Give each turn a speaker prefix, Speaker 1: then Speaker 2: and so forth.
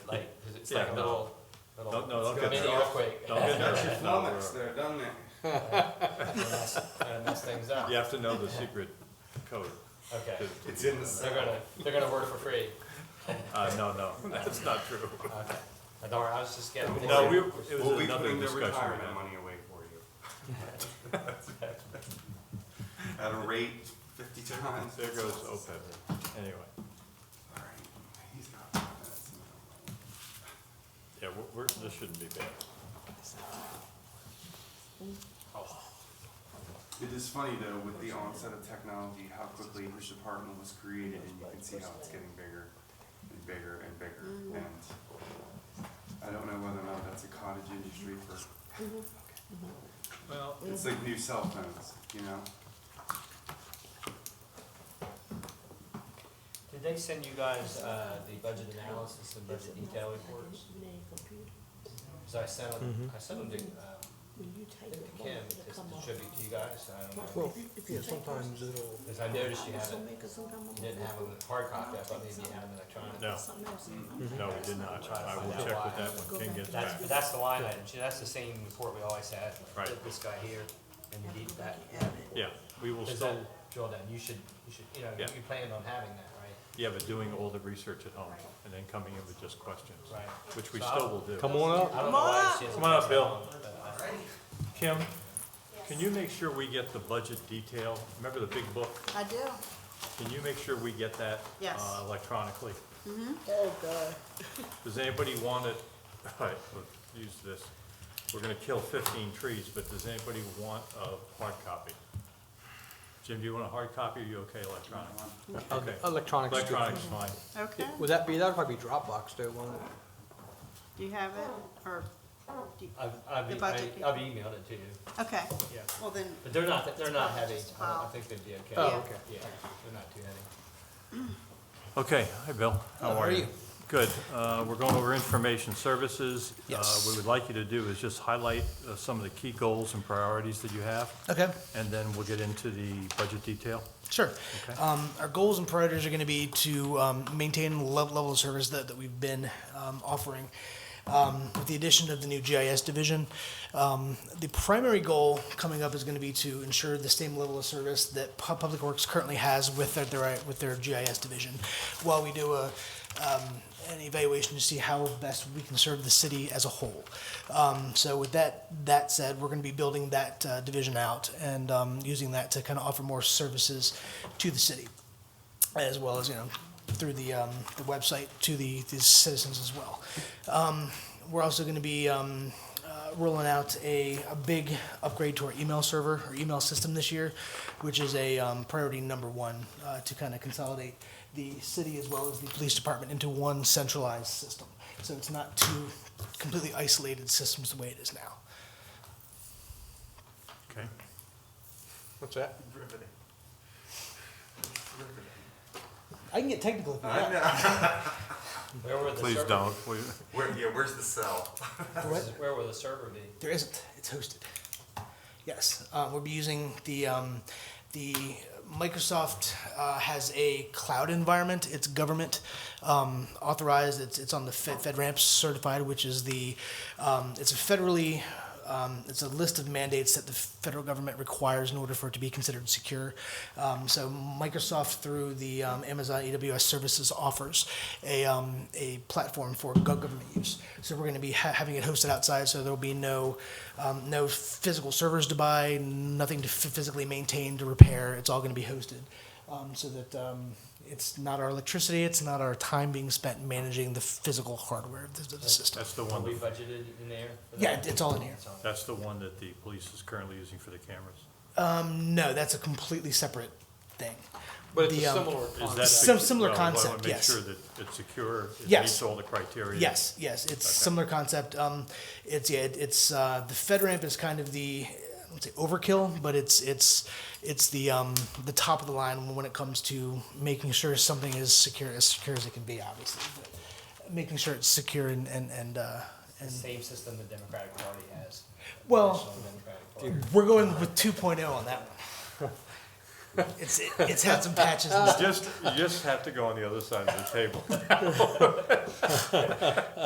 Speaker 1: it's
Speaker 2: Yeah,
Speaker 1: like a
Speaker 2: no.
Speaker 1: little, little
Speaker 2: Don't- no, don't get
Speaker 1: mini
Speaker 2: nervous.
Speaker 1: earthquake.
Speaker 2: Don't get
Speaker 3: Got your
Speaker 2: nervous. No,
Speaker 3: flummox
Speaker 2: we're-
Speaker 3: there, doesn't it?
Speaker 1: Gonna mess things up.
Speaker 2: You have to know the secret code.
Speaker 1: Okay,
Speaker 2: to-
Speaker 3: It's in
Speaker 1: they're
Speaker 3: the cell.
Speaker 1: gonna, they're gonna work for free.
Speaker 2: Uh, no, no, that's not true.
Speaker 1: Okay. I don't worry, I was just getting.
Speaker 2: No, we, it
Speaker 3: We'll
Speaker 2: was
Speaker 3: be
Speaker 2: another
Speaker 3: putting their
Speaker 2: discussion. we
Speaker 3: retirement
Speaker 2: had.
Speaker 3: money away for you. At a rate fifty times.
Speaker 2: There goes oh. OPEB. Anyway,
Speaker 3: All right, he's got five minutes.
Speaker 2: yeah, we're, we're, this shouldn't be bad.
Speaker 3: It is funny though, with the onset of technology, how quickly this department was created and you can see how it's getting bigger and bigger and bigger. And I don't know whether or not that's a cottage industry for,
Speaker 2: Well,
Speaker 3: it's like new cell phones, you know?
Speaker 1: Did they send you guys, uh, the budget analysis and budget detail reports? Cause I sent them,
Speaker 2: Mm-hmm.
Speaker 1: I sent them to, um,
Speaker 4: When you type
Speaker 1: to
Speaker 4: it,
Speaker 1: Kim,
Speaker 4: won't
Speaker 1: just
Speaker 4: come
Speaker 1: to
Speaker 4: up?
Speaker 1: distribute to you guys, I don't know.
Speaker 5: Well, yeah, sometimes it'll,
Speaker 1: Cause I noticed you
Speaker 4: This will
Speaker 1: haven't,
Speaker 4: make us uncomfortable.
Speaker 1: you didn't have a hard copy, I thought maybe you had an electronic.
Speaker 2: no,
Speaker 4: Something else.
Speaker 2: no, we did not. I will check with that when Ken gets back.
Speaker 1: Mm-hmm. That's, that's the line item, See, that's the same report we always had, like,
Speaker 2: Right.
Speaker 1: this guy here, and you need that.
Speaker 2: Yeah, we will
Speaker 1: Does
Speaker 2: still,
Speaker 1: that drill down, you should, you should, you know,
Speaker 2: Yeah.
Speaker 1: you plan on having that, right?
Speaker 2: yeah, but doing all the research at home and then coming in with just questions,
Speaker 1: Right.
Speaker 2: which we
Speaker 1: So
Speaker 2: still
Speaker 1: I'll-
Speaker 2: will do.
Speaker 5: come on up.
Speaker 1: I don't know why she hasn't
Speaker 2: Come on up,
Speaker 1: passed
Speaker 2: Bill.
Speaker 1: on, but, uh,
Speaker 2: Kim, can you make sure we get the budget detail? Remember the big book?
Speaker 6: I do.
Speaker 2: Can you make sure we get that?
Speaker 6: Yes.
Speaker 2: uh, Electronically?
Speaker 5: Oh, God.
Speaker 2: Does anybody want it, all right, we'll use this. We're gonna kill fifteen trees, but does anybody want a hard copy? Jim, do you want a hard copy or you okay electronic? Okay,
Speaker 5: Electronics. is good.
Speaker 2: electronic's fine.
Speaker 6: Okay.
Speaker 5: Would that be, that would probably be Dropbox though, wouldn't it?
Speaker 6: Do you have it or? do you-
Speaker 1: I've, I've,
Speaker 6: The
Speaker 1: e-
Speaker 6: budget.
Speaker 1: I- I've emailed it to you,
Speaker 6: Okay,
Speaker 1: yeah,
Speaker 6: well then,
Speaker 1: but they're not, they're not heavy,
Speaker 6: Just
Speaker 1: I don't- I
Speaker 6: file.
Speaker 1: think they'd be okay.
Speaker 6: Oh, Yeah.
Speaker 5: okay.
Speaker 1: Yeah, they're not too heavy.
Speaker 2: Okay, hi, Bill. How
Speaker 5: How
Speaker 2: are
Speaker 5: are
Speaker 2: you?
Speaker 5: you?
Speaker 2: Good. Uh, We're going over information services. Uh,
Speaker 5: Yes.
Speaker 2: What we'd like you to do is just highlight uh, some of the key goals and priorities that you have,
Speaker 7: Okay,
Speaker 2: and then we'll get into the budget detail.
Speaker 7: sure.
Speaker 2: Okay.
Speaker 7: Um, our goals and priorities are going to be to um, maintain the lev- level of service that, that we've been um, offering. Um, with the addition of the new GIS division, um, the primary goal coming up is going to be to ensure the same level of service that Pu- Public Works currently has with their, their with their GIS division. While we do a um, an evaluation to see how best we can serve the city as a whole. Um, so with that that said, we're going to be building that uh, division out and um, using that to kind of offer more services to the city, as well as you know through the um, the website to the, the citizens as well. Um, we're also going to be um, uh, rolling out a, a big upgrade to our email server or email system this year, which is a um, priority number one uh, to kind of consolidate the city as well as the police department into one centralized system. So it's not two completely isolated systems the way it is now.
Speaker 2: Okay.
Speaker 5: What's that?
Speaker 3: Riveting.
Speaker 5: I can get technical if you
Speaker 3: I
Speaker 5: want.
Speaker 3: know.
Speaker 1: Where were the server?
Speaker 2: Hmm. Please don't. We-
Speaker 3: Where, yeah, where's the cell?
Speaker 5: What?
Speaker 1: Where will the server be?
Speaker 7: There isn't. It's hosted. Yes, uh, we'll be using the um, the Microsoft uh, has a cloud environment. It's government um, authorized. It's it's on the Fed, FedRAMP certified, which is the um, it's a federally um, it's a list of mandates that the federal government requires in order for it to be considered secure. Um, so Microsoft, through the um, Amazon AWS services, offers a, um, a platform for go- government use. So we're going to be ha- having it hosted outside, so there will be no um, no physical servers to buy, nothing to f- physically maintain to repair. It's all going to be hosted, um, so that. Um, it's not our electricity. It's not our time being spent managing the physical hardware of the, of the system.
Speaker 2: That's the
Speaker 1: Are
Speaker 2: one,
Speaker 1: we
Speaker 2: that-
Speaker 1: budgeted in there? for that?
Speaker 7: Yeah, it's all in here.
Speaker 1: It's on-
Speaker 2: that's the one that the police is currently using for the cameras.
Speaker 7: No, that's a completely separate thing.
Speaker 5: But it's a
Speaker 7: The, um,
Speaker 5: similar
Speaker 2: Is
Speaker 5: concept.
Speaker 2: that
Speaker 7: Some
Speaker 2: secu-
Speaker 7: similar
Speaker 2: well, I wanna
Speaker 7: concept, yes.
Speaker 2: Make sure that it's secure, it
Speaker 7: Yes.
Speaker 2: meets all the criteria.
Speaker 7: Yes, yes, it's
Speaker 2: Okay.
Speaker 7: similar concept. Um, it's yeah, it, it's uh, the FedRAMP is kind of the I wouldn't say overkill, but it's it's it's the um, the top of the line when it comes to making sure something is secure as secure as it can be, obviously. But making sure it's secure and and and, uh,
Speaker 1: The
Speaker 7: and
Speaker 1: same system the Democratic Party has.
Speaker 7: Well,
Speaker 1: National Democratic Party.
Speaker 7: we're going with 2.0 on that one. it's it, it's had some patches. And stuff.
Speaker 2: Just, you just have to go on the other side of the table.